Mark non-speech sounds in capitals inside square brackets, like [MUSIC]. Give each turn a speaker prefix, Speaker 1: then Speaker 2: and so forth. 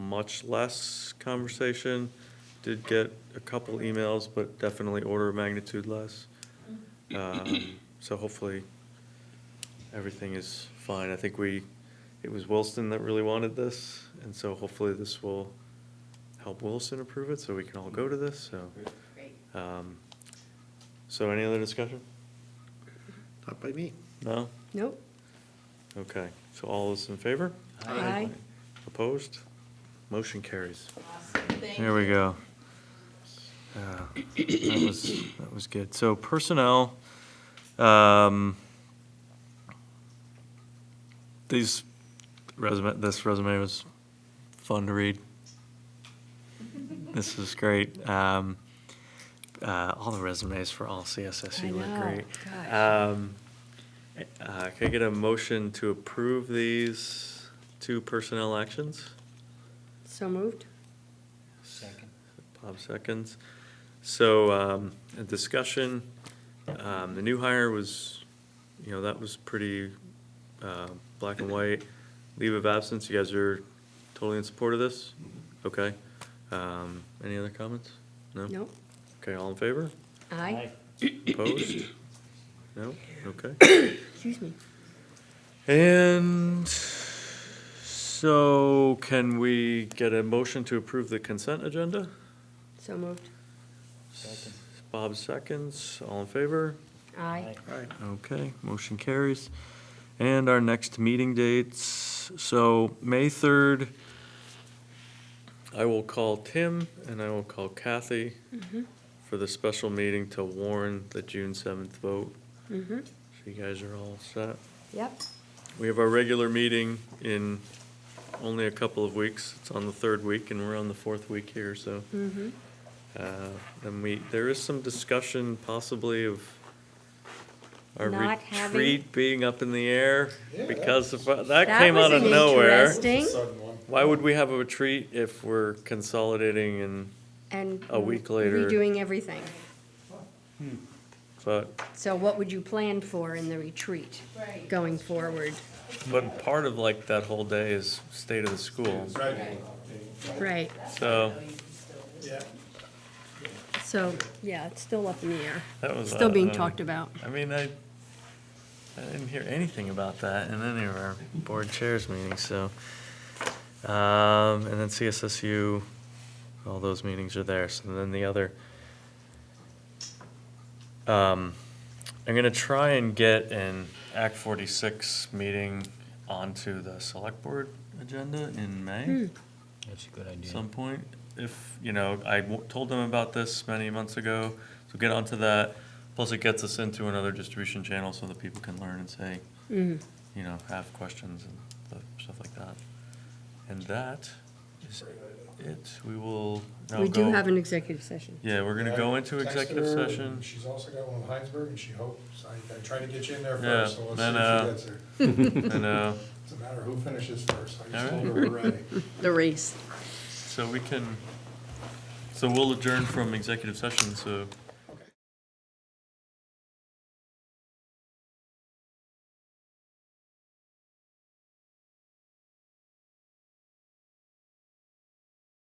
Speaker 1: much less conversation. Did get a couple emails, but definitely order of magnitude less. Um, So hopefully, everything is fine. I think we, it was Wilson that really wanted this, and so hopefully this will help Wilson approve it, so we can all go to this, so.
Speaker 2: Great.
Speaker 1: um, So any other discussion?
Speaker 3: Not by me.
Speaker 1: No?
Speaker 4: Nope.
Speaker 1: Okay, so all those in favor?
Speaker 4: Aye. Aye.
Speaker 1: Opposed? Motion carries.
Speaker 2: Awesome, thank
Speaker 1: There we
Speaker 2: you.
Speaker 1: go. Uh, That was, that was good. So personnel, um, these resume, this resume was fun to read. This is great. Um, uh, all the resumes for all
Speaker 4: I
Speaker 1: CSSU look
Speaker 4: know,
Speaker 1: great.
Speaker 4: gosh.
Speaker 1: Um, uh, can I get a motion to approve these two personnel actions?
Speaker 4: So moved?
Speaker 5: Second.
Speaker 1: Bob seconds. So, um, a discussion, um, the new hire was, you know, that was pretty, uh, black and white. Leave of absence, you guys are totally in support of this? Okay. Um, any other comments? No?
Speaker 4: Nope.
Speaker 1: Okay, all in favor?
Speaker 4: Aye.
Speaker 1: Opposed? No? Okay.
Speaker 4: Excuse me.
Speaker 1: And so can we get a motion to approve the consent agenda?
Speaker 4: So moved?
Speaker 5: Second.
Speaker 1: Bob seconds, all in favor?
Speaker 4: Aye.
Speaker 3: Aye.
Speaker 1: Okay, motion carries. And our next meeting dates, so May 3rd, I will call Tim and I will call Kathy for the special meeting to warn the June 7th vote.
Speaker 4: Mm-hmm.
Speaker 1: So you guys are all set.
Speaker 4: Yep.
Speaker 1: We have our regular meeting in only a couple of weeks. It's on the third week, and we're on the fourth week here, so.
Speaker 4: Mm-hmm.
Speaker 1: uh, Then we, there is some discussion possibly of our
Speaker 4: Not having-
Speaker 1: retreat being up in the air
Speaker 3: Yeah,
Speaker 1: because of, that came out of nowhere.
Speaker 4: Interesting.
Speaker 3: Sudden one.
Speaker 1: Why would we have a retreat if we're consolidating and,
Speaker 4: And.
Speaker 1: A week later.
Speaker 4: Redoing everything.
Speaker 1: but,
Speaker 4: So what would you plan for in the retreat
Speaker 2: Right.
Speaker 4: going forward?
Speaker 1: but part of like that whole day is state of the school.
Speaker 3: Right.
Speaker 4: Right.
Speaker 1: So
Speaker 3: Yeah.
Speaker 4: So, yeah, it's still up in the air.
Speaker 1: that was.
Speaker 4: Still
Speaker 1: uh,
Speaker 4: being
Speaker 1: um,
Speaker 4: talked about.
Speaker 1: I mean, I, I didn't hear anything about that in any of our board chairs meetings, so. Um, and then CSSU, all those meetings are there, so then the other. Um, I'm gonna try and get an Act forty-six meeting onto the select board agenda in May
Speaker 5: That's a good idea.
Speaker 1: some point. If, you know, I w- told them about this many months ago, so get onto that. Plus it gets us into another distribution channel so that people can learn and say,
Speaker 4: Mhm.
Speaker 1: you know, have questions and th- stuff like that. And that is it. We will now go.
Speaker 4: We do have an executive session.
Speaker 1: Yeah, we're gonna go into
Speaker 6: I texted
Speaker 1: executive
Speaker 6: her,
Speaker 1: session.
Speaker 6: and She's also got one in Heinsberg, and she hopes, I, I tried to get you in there
Speaker 1: Yeah,
Speaker 6: first, so let's see
Speaker 1: then,
Speaker 6: if
Speaker 1: uh,
Speaker 6: she gets there.
Speaker 1: And, uh,
Speaker 6: It's a matter of who finishes first, I
Speaker 1: All
Speaker 6: just told her
Speaker 1: [LAUGHS]
Speaker 6: we're ready.
Speaker 4: The race.
Speaker 1: so we can, so we'll adjourn from executive session, so